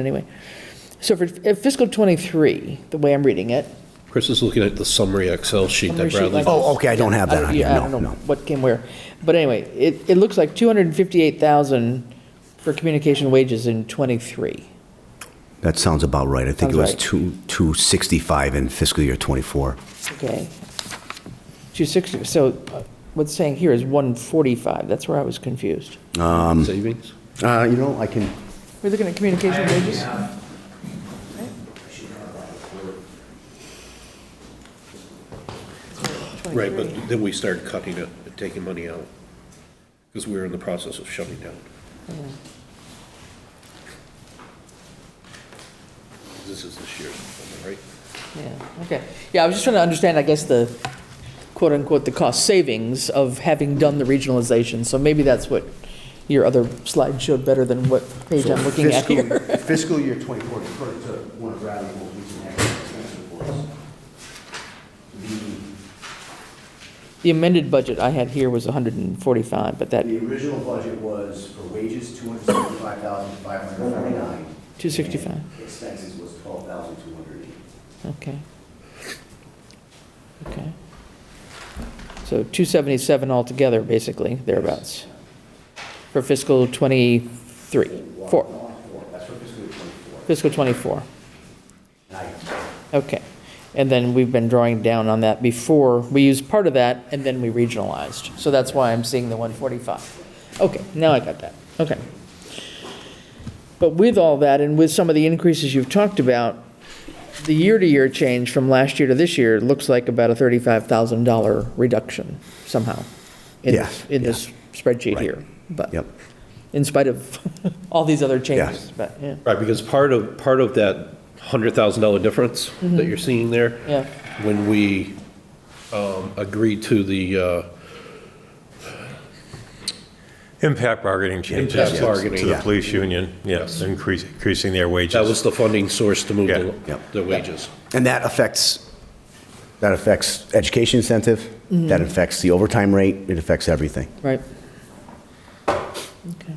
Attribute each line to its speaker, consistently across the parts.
Speaker 1: anyway. So for fiscal '23, the way I'm reading it.
Speaker 2: Chris is looking at the summary Excel sheet
Speaker 1: summary
Speaker 2: that
Speaker 1: sheet
Speaker 2: Bradley.
Speaker 1: like-
Speaker 3: Oh, okay, I don't have that on here.
Speaker 1: Yeah, I
Speaker 3: No,
Speaker 1: don't know
Speaker 3: no.
Speaker 1: what came where. But anyway, it, it looks like 258,000 for communication wages in '23.
Speaker 3: That sounds about right. I think it was
Speaker 1: Sounds right.
Speaker 3: two, 265 in fiscal year '24.
Speaker 1: Okay. 260, so uh, what's saying here is 145. That's where I was confused.
Speaker 2: Savings?
Speaker 3: Uh, you know, I can,
Speaker 1: We're looking at communication wages?
Speaker 2: Right, but then we started cutting it, and taking money out, because we were in the process of shutting down. This is this year's, number, right?
Speaker 1: Yeah, okay. Yeah, I was just trying to understand, I guess, the quote-unquote, the cost savings of having done the regionalization. So maybe that's what your other slide showed better than what page I'm looking at
Speaker 3: Fiscal-
Speaker 1: here.
Speaker 3: Fiscal year '24, according to one of Bradley's most recent expense reports, the,
Speaker 1: The amended budget I had here was 145, but that,
Speaker 3: the original budget was for wages, 275,549.
Speaker 1: 265.
Speaker 3: and Expenses was 12,208.
Speaker 1: okay. Okay. So 277 altogether, basically, thereabouts, for fiscal '23, four,
Speaker 3: That's for fiscal year '24.
Speaker 1: fiscal '24.
Speaker 3: And I,
Speaker 1: Okay. And then we've been drawing down on that before. We used part of that and then we regionalized. So that's why I'm seeing the 145. Okay, now I got that. Okay. But with all that and with some of the increases you've talked about, the year-to-year change from last year to this year looks like about a $35,000 reduction somehow in
Speaker 3: Yeah,
Speaker 1: this, in
Speaker 3: yeah.
Speaker 1: this spreadsheet
Speaker 3: Right.
Speaker 1: here. But
Speaker 3: Yep.
Speaker 1: in spite of all these other changes, but yeah,
Speaker 2: Right, because part of, part of that hundred thousand dollar difference that you're seeing there.
Speaker 1: Yeah.
Speaker 2: When we, um, agreed to the, uh,
Speaker 4: Impact bargaining changes.
Speaker 2: Impact
Speaker 4: yes,
Speaker 2: bargaining.
Speaker 4: To the
Speaker 3: Yeah.
Speaker 4: police union, yes, increase- increasing their wages.
Speaker 2: that was the funding source to move
Speaker 4: Yeah,
Speaker 2: the,
Speaker 3: yeah.
Speaker 2: the wages.
Speaker 3: And that affects, that affects education incentive,
Speaker 1: Mm-hmm.
Speaker 3: that affects the overtime rate, it affects everything.
Speaker 1: Right. Okay.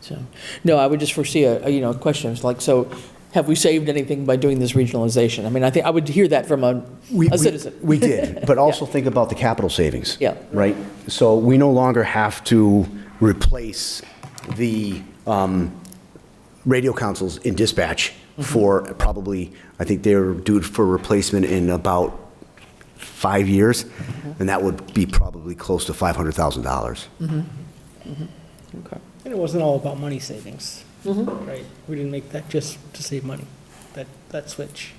Speaker 1: So, no, I would just foresee a, a, you know, questions like, so have we saved anything by doing this regionalization? I mean, I think, I would hear that from a,
Speaker 3: We-
Speaker 1: a
Speaker 3: we-
Speaker 1: citizen.
Speaker 3: We did, but also think about the capital savings.
Speaker 1: Yeah.
Speaker 3: Right? So we no longer have to replace the um, radio consoles in dispatch
Speaker 1: Mm-hmm.
Speaker 3: for probably, I think they're due for replacement in about five years,
Speaker 1: Mm-hmm.
Speaker 3: and that would be probably close to $500,000.
Speaker 1: Okay.
Speaker 5: And it wasn't all about money savings, right? We didn't make that just to save money, that, that switch.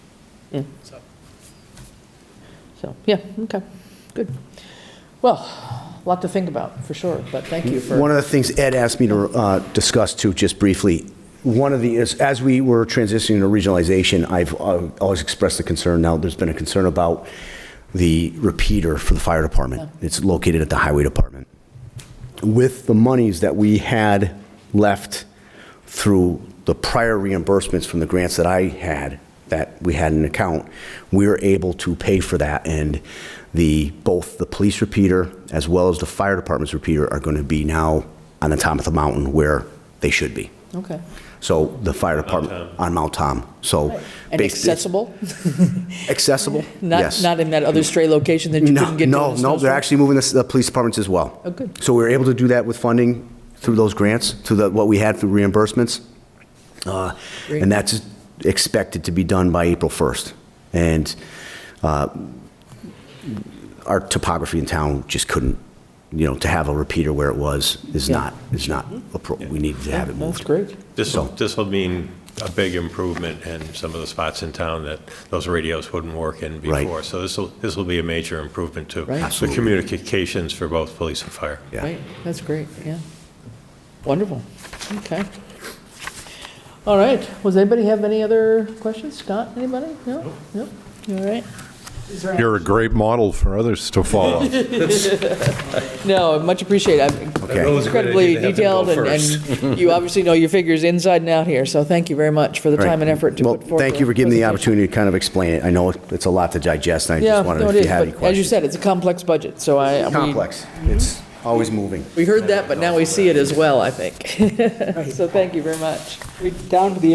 Speaker 5: So,
Speaker 1: So, yeah, okay, good. Well, a lot to think about, for sure, but thank you for.
Speaker 3: One of the things Ed asked me to uh, discuss too, just briefly, one of the, is as we were transitioning to regionalization, I've uh, always expressed the concern, now there's been a concern about the repeater for the fire department. It's located at the highway department. With the monies that we had left through the prior reimbursements from the grants that I had, that we had in account, we were able to pay for that, and the, both the police repeater as well as the fire department's repeater are going to be now on the top of the mountain where they should be.
Speaker 1: Okay.
Speaker 3: So the fire department, on Mount Tom, so.
Speaker 1: And
Speaker 3: bas-
Speaker 1: accessible?
Speaker 3: Accessible,
Speaker 1: Not,
Speaker 3: yes.
Speaker 1: not in that other stray location that you
Speaker 3: No,
Speaker 1: couldn't get to? in
Speaker 3: No,
Speaker 1: a
Speaker 3: no, they're
Speaker 1: snowstorm?
Speaker 3: actually moving the, the police departments as well.
Speaker 1: Oh, good.
Speaker 3: So we were able to do that with funding through those grants, through the, what we had through reimbursements. Uh,
Speaker 1: Great.
Speaker 3: And that's expected to be done by April 1st. And uh, our topography in town just couldn't, you know, to have a repeater where it was is
Speaker 1: Yeah.
Speaker 3: not, is not, appro- we needed to have it
Speaker 1: That's
Speaker 3: moved.
Speaker 1: great.
Speaker 4: This,
Speaker 3: So-
Speaker 4: this will mean a big improvement in some of the spots in town that those radios wouldn't work in
Speaker 3: Right.
Speaker 4: before. So this will, this will be a major improvement to
Speaker 1: Right.
Speaker 4: the
Speaker 3: Absolutely.
Speaker 4: communications for both police and fire.
Speaker 3: Yeah.
Speaker 1: Right, that's great, yeah. Wonderful, okay. All right, does anybody have any other questions? Scott, anybody? No? No? You All right.
Speaker 6: You're a great model for others to follow.
Speaker 1: No, much appreciated. I'm
Speaker 3: Okay.
Speaker 2: That was a good
Speaker 1: Incredibly
Speaker 2: idea to have them go
Speaker 1: detailed, and- and you obviously know your figures inside and out here, so thank you very much for the
Speaker 3: All right.
Speaker 1: time and effort to
Speaker 3: Well,
Speaker 1: put forth.
Speaker 3: thank you for giving the
Speaker 1: presentation.
Speaker 3: opportunity to kind of explain it. I know it's a lot to digest, and I
Speaker 1: Yeah,
Speaker 3: just
Speaker 1: no,
Speaker 3: wanted,
Speaker 1: it
Speaker 3: if
Speaker 1: is,
Speaker 3: you had any
Speaker 1: but as you
Speaker 3: questions.
Speaker 1: said, it's a complex budget, so I. we-
Speaker 3: Complex. It's always moving.
Speaker 1: We heard that, but now we see it as well, I think. So thank you very much.
Speaker 5: we down to the